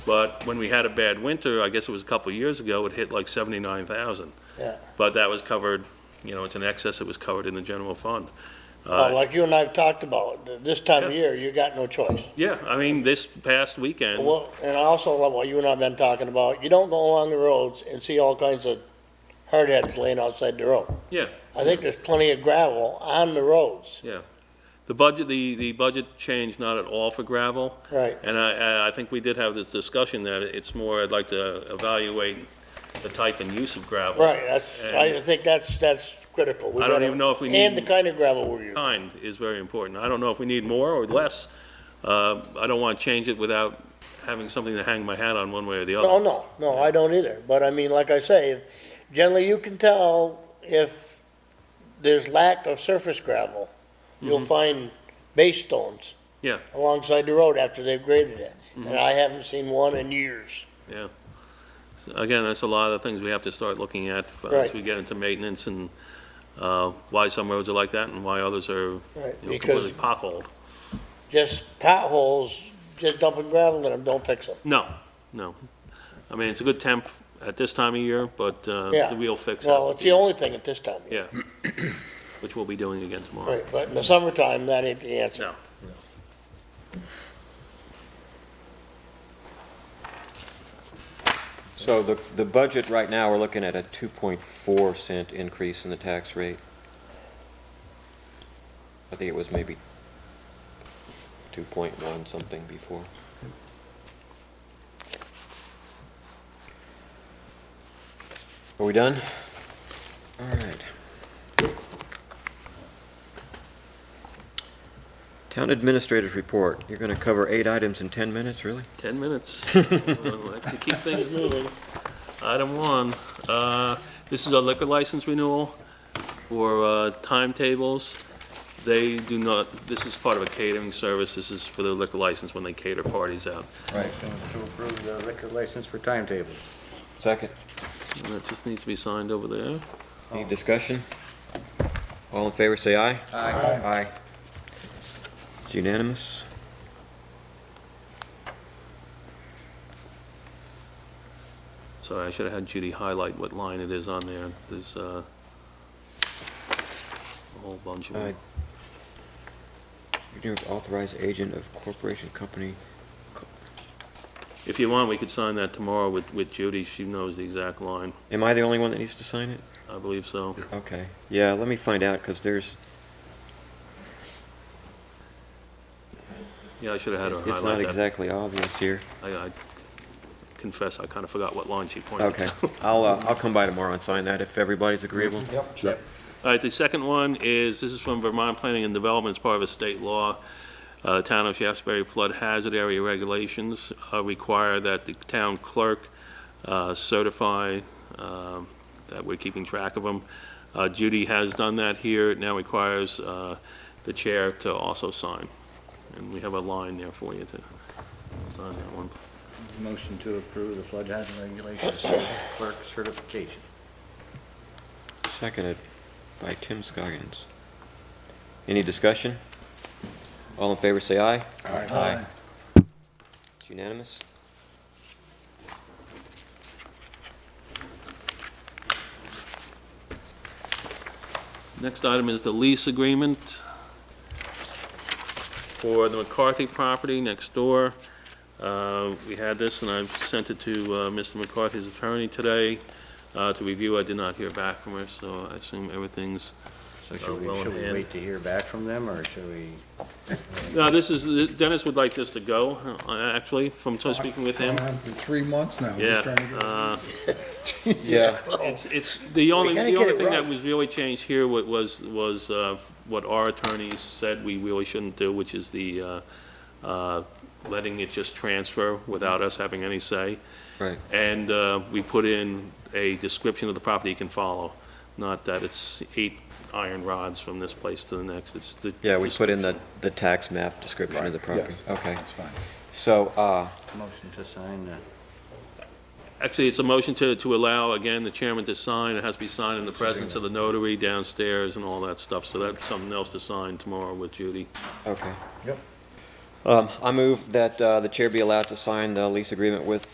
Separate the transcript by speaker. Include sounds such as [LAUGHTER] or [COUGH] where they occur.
Speaker 1: But when we had a bad winter, I guess it was a couple of years ago, it hit like 79,000.
Speaker 2: Yeah.
Speaker 1: But that was covered, you know, it's an excess, it was covered in the general fund.
Speaker 2: Oh, Well, like you and I have talked about, th- this time of
Speaker 1: Yeah.
Speaker 2: year, you got no choice.
Speaker 1: Uh, Yeah, I mean, this past weekend,
Speaker 2: Well, and I also love what you and I have been talking about, you don't go along the roads and see all kinds of hard heads laying outside the road.
Speaker 1: yeah,
Speaker 2: I think there's plenty of gravel on the roads,
Speaker 1: yeah. The budget, the, the budget changed not at all for gravel.
Speaker 2: right?
Speaker 1: And I, I- I think we did have this discussion that it's more, I'd like to evaluate the type and use of gravel.
Speaker 2: Right, that's, I
Speaker 1: And-
Speaker 2: think that's, that's critical. We
Speaker 1: I don't
Speaker 2: gotta-
Speaker 1: even know if we
Speaker 2: And the
Speaker 1: need-
Speaker 2: kind of gravel we're using.
Speaker 1: Kind is very important. I don't know if we need more or less. Uh, I don't want to change it without having something to hang my hat on one way or the
Speaker 2: No,
Speaker 1: other.
Speaker 2: no, no, I don't either, but I mean, like I say, generally you can tell if there's lack of surface gravel, you'll find base stones.
Speaker 1: Mm-hmm. Yeah. Mm-hmm.
Speaker 2: Alongside the road after they've graded it, and I haven't seen one in years.
Speaker 1: Yeah. So Again, that's a lot of the things we have to start looking at f- as
Speaker 2: Right.
Speaker 1: we get into maintenance and uh, why some roads are like that and why others are you
Speaker 2: Right,
Speaker 1: know,
Speaker 2: because
Speaker 1: completely potholed.
Speaker 2: just potholes, just dumping gravel in them, don't fix them.
Speaker 1: No, no. I mean, it's a good temp at this time of year, but uh,
Speaker 2: Yeah.
Speaker 1: the real fix has
Speaker 2: Well,
Speaker 1: to
Speaker 2: it's
Speaker 1: be-
Speaker 2: the only thing at this time.
Speaker 1: Yeah, which we'll be doing again tomorrow.
Speaker 2: Right, but in the summertime, that ain't the answer.
Speaker 1: No.
Speaker 3: So the, the budget right now, we're looking at a 2.4 cent increase in the tax rate. I think it was maybe 2.1 something before. Are we done? All right. Town administrators report. You're going to cover eight items in 10 minutes, really?
Speaker 1: 10
Speaker 2: [LAUGHS]
Speaker 1: minutes. Well, I can Keep things moving. Item one, uh, this is a liquor license renewal for uh, timetables. They do not, this is part of a catering service. This is for the liquor license when they cater parties out.
Speaker 3: Right.
Speaker 4: To approve the liquor license for timetable.
Speaker 3: Second.
Speaker 1: And That just needs to be signed over there.
Speaker 3: Any discussion? All in favor, say aye. Aye. It's unanimous.
Speaker 1: Sorry, I should have had Judy highlight what line it is on there. There's uh, a whole bunch of
Speaker 3: Uh,
Speaker 1: them.
Speaker 3: You're to authorize agent of corporation company.
Speaker 1: If you want, we could sign that tomorrow with with Judy. She knows the exact line.
Speaker 3: Am I the only one that needs to sign it?
Speaker 1: I believe so.
Speaker 3: Okay, yeah, let me find out, because there's,
Speaker 1: Yeah, I should have had her highlight that.
Speaker 3: it's not exactly obvious here.
Speaker 1: I I confess, I kind of forgot what line she pointed to.
Speaker 3: Okay, I'll, uh, I'll come by tomorrow and sign that if everybody's agreeable.
Speaker 1: All right, the second one is, this is from Vermont Planning and Development, it's part of a state law. Uh, the Town of Shaftesbury Flood Hazard Area Regulations uh, require that the town clerk uh, certify um, that we're keeping track of them. Uh, Judy has done that here, it now requires uh, the chair to also sign. And we have a line there for you to sign that one.
Speaker 4: Motion to approve the flood hazard regulations clerk certification.
Speaker 3: Seconded by Tim Scoggins. Any discussion? All in favor, say aye. Aye. It's unanimous.
Speaker 1: Next item is the lease agreement for the McCarthy property next door. Uh, We had this, and I've sent it to uh, Mr. McCarthy's attorney today uh, to review. I did not hear back from her, so I assume everything's,
Speaker 4: So
Speaker 1: Oh,
Speaker 4: should we,
Speaker 1: well in
Speaker 4: should we
Speaker 1: hand.
Speaker 4: wait to hear back from them, or should we?
Speaker 1: no, this is, Dennis would like this to go, uh, actually, from speaking with him.
Speaker 5: I've had For three months now,
Speaker 1: Yeah.
Speaker 5: just trying to get.
Speaker 1: uh,
Speaker 3: Yeah.
Speaker 1: It's, it's, the only,
Speaker 2: gotta
Speaker 1: the
Speaker 2: get
Speaker 1: only
Speaker 2: it
Speaker 1: thing that
Speaker 2: right.
Speaker 1: was really changed here wa- was, was uh, what our attorneys said we really shouldn't do, which is the, uh, uh, letting it just transfer without us having any say.
Speaker 3: Right.
Speaker 1: And uh, we put in a description of the property you can follow, not that it's eight iron rods from this place to the next, it's the.
Speaker 3: Yeah, we put in the, the tax map description of the property.
Speaker 5: Yes,
Speaker 3: Okay,
Speaker 5: That's fine.
Speaker 3: so, uh,
Speaker 4: Motion to sign uh, the.
Speaker 1: Actually, it's a motion to, to allow, again, the chairman to sign, it has to be signed in the presence of the notary downstairs and all that stuff, so that's something else to sign tomorrow with Judy.
Speaker 3: okay.
Speaker 4: Yep.
Speaker 3: Um, I move that uh, the chair be allowed to sign the lease agreement with